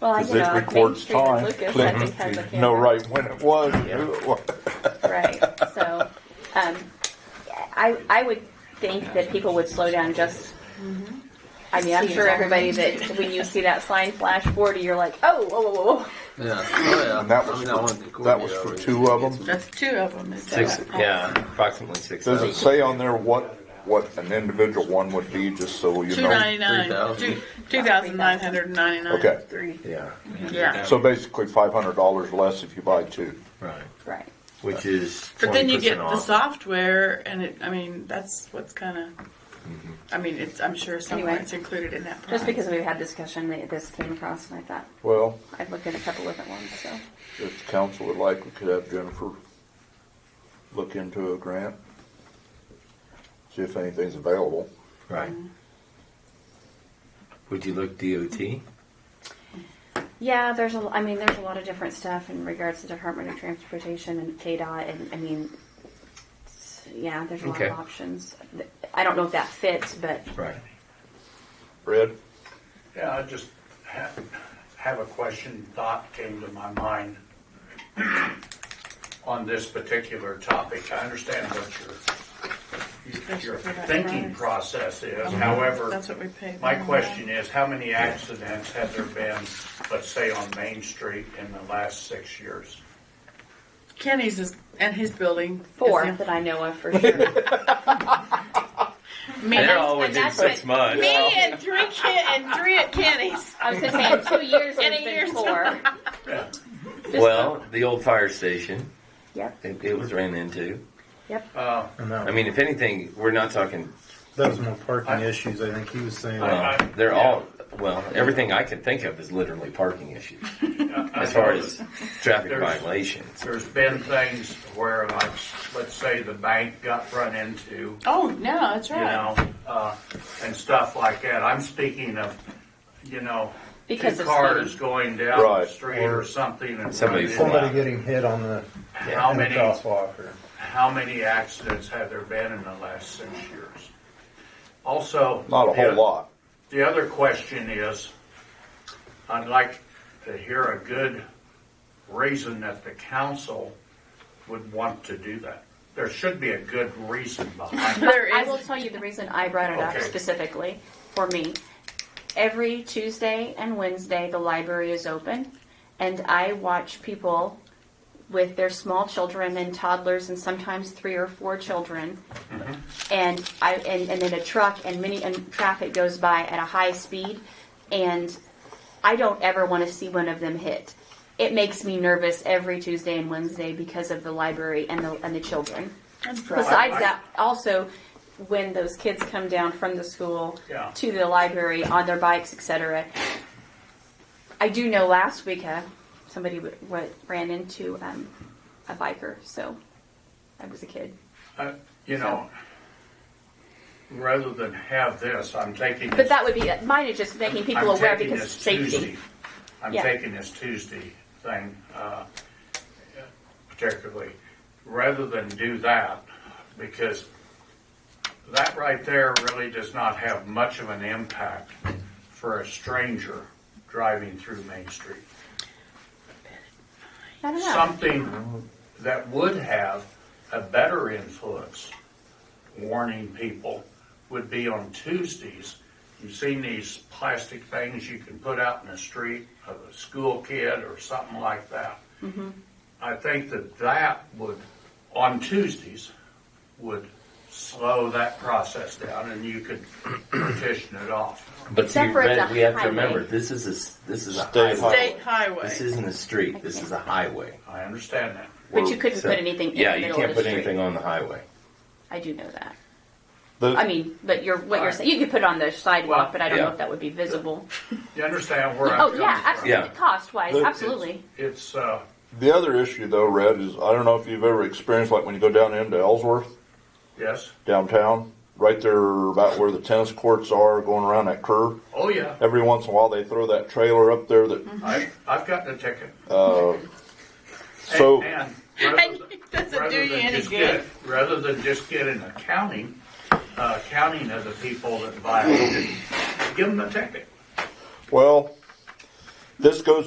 Well, I- 'Cause you it know, like Main records Street and time. Lucas, I Click. think, has a You know camera. right when it was, and who it was. Right. So, um, I, I would think that people would slow down just. I mean, I'm See sure it. everybody Mm-hmm. that when you see that sign flash 40, you're like, oh, whoa, whoa, whoa, whoa. Yeah. Oh, yeah. And that I was mean, for- wanted to that was for coordinate two of already. them? That's two of them. is that Six, right? yeah, approximately six Does it thousand. say on there what, what an individual one would be, just so you Two know? ninety nine, 3,000. two two thousand nine hundred ninety nine. Okay. Three. Yeah, Yeah. So basically five hundred dollars less if you buy two. right. Right. Which is But then you 20% get the off. software, and it. I mean, that's what's kind of. Mm-hmm. I mean, it's. I'm sure somewhere Anyway. it's included in that. Price. Just because we've had discussion, th- this came across, and I thought Well, I'd look at a couple different ones. So, if the council would like, we could have Jennifer look into a grant, see if anything's available. Right. Would you look DOT? yeah, there's a. l- I mean, there's a lot of different stuff in regards to Department of Transportation and KDOT, and I mean, s- yeah, there's a lot Okay. of options. Th- I don't know if that fits, but Right. Red? Yeah, I just have, have a question, thought came to my mind on this particular topic. I understand what your, your thinking process is, however, that's what we paid. my them. question is, how many accidents have there been, let's say on Main Street in the last six years? Kenny's is and his building. is four in- that I know of for sure. Me, They're that's- always in that's six what- months. me and three Ken and three at Kenny's. I was gonna say in two years In it's a year's been four. Well, the old fire station, Yep, it, it was ran into. yep. Uh, And that, I mean, if anything, we're not talking. that was more parking issues. I think he was saying. Uh, I- I- they're yeah. all well. Everything I can think of is literally parking issues I- I as far know as traffic There's- violations. There's been things where like, let's say the bank got run into, Oh no, that's you right. know, uh, and stuff like that. I'm speaking of, you know, Because two of cars speeding. going down the Right. street or something and Somebody run into- Somebody getting hit on the, How in the many, crosswalk. Or, how many accidents have there been in the last six years? Also. Not a the- whole lot. The other question is, I'd like to hear a good reason that the council would want to do that. There should be a good reason behind it. There I is- will tell you the reason I brought it up Okay. specifically for me. Every Tuesday and Wednesday, the library is open, and I watch people with their small children and toddlers, and sometimes three or four children, Mm-hmm. and I and, and then a truck and many and traffic goes by at a high speed, and I don't ever want to see one of them hit. It makes me nervous every Tuesday and Wednesday because of the library and the and the children. Besides that, also, when those kids come down from the school Yeah. to the library on their bikes, etc. I do know last week uh, somebody w- w- ran into um, a biker, so I was a kid. Uh, You know, rather than have this, I'm taking But this. that would be uh, mine is just making people I'm aware taking because this safety. Tuesday- I'm Yeah. taking this Tuesday thing, uh, particularly, rather than do that, because that right there really does not have much of an impact for a stranger driving through Main Street. I don't know. Something that would have a better influence warning people would be on Tuesdays. You've seen these plastic things you can put out in the street of a school kid or something like that. Mm-hmm. I think that that would, on Tuesdays, would slow that process down and you could petition it off. But Except see, for it's Red, a we have highway. to remember this is a s- this is a State highway. State highway. This isn't a street. This is a highway. I understand that. but you couldn't So- put anything in Yeah, the you middle can't of the put street. anything on the highway. I do know that. The- I mean, but you're what you're Alright. saying. You could put on the sidewalk, Well, but I don't know yeah. if that would be visible. You understand where I'm Oh coming from? yeah, absolutely. Yeah. Cost wise, Look, absolutely. It's, uh, The other issue though, Red, is I don't know if you've ever experienced, like when you go down into Ellsworth yes, downtown, right there about where the tennis courts are, going around that curve. oh yeah. Every once in a while, they throw that trailer up there that, I, I've gotten a ticket. so, And And rather than- it doesn't rather do you than any just good. get- Rather than just get an accounting, uh, counting of the people that violated, give them a ticket. well, This goes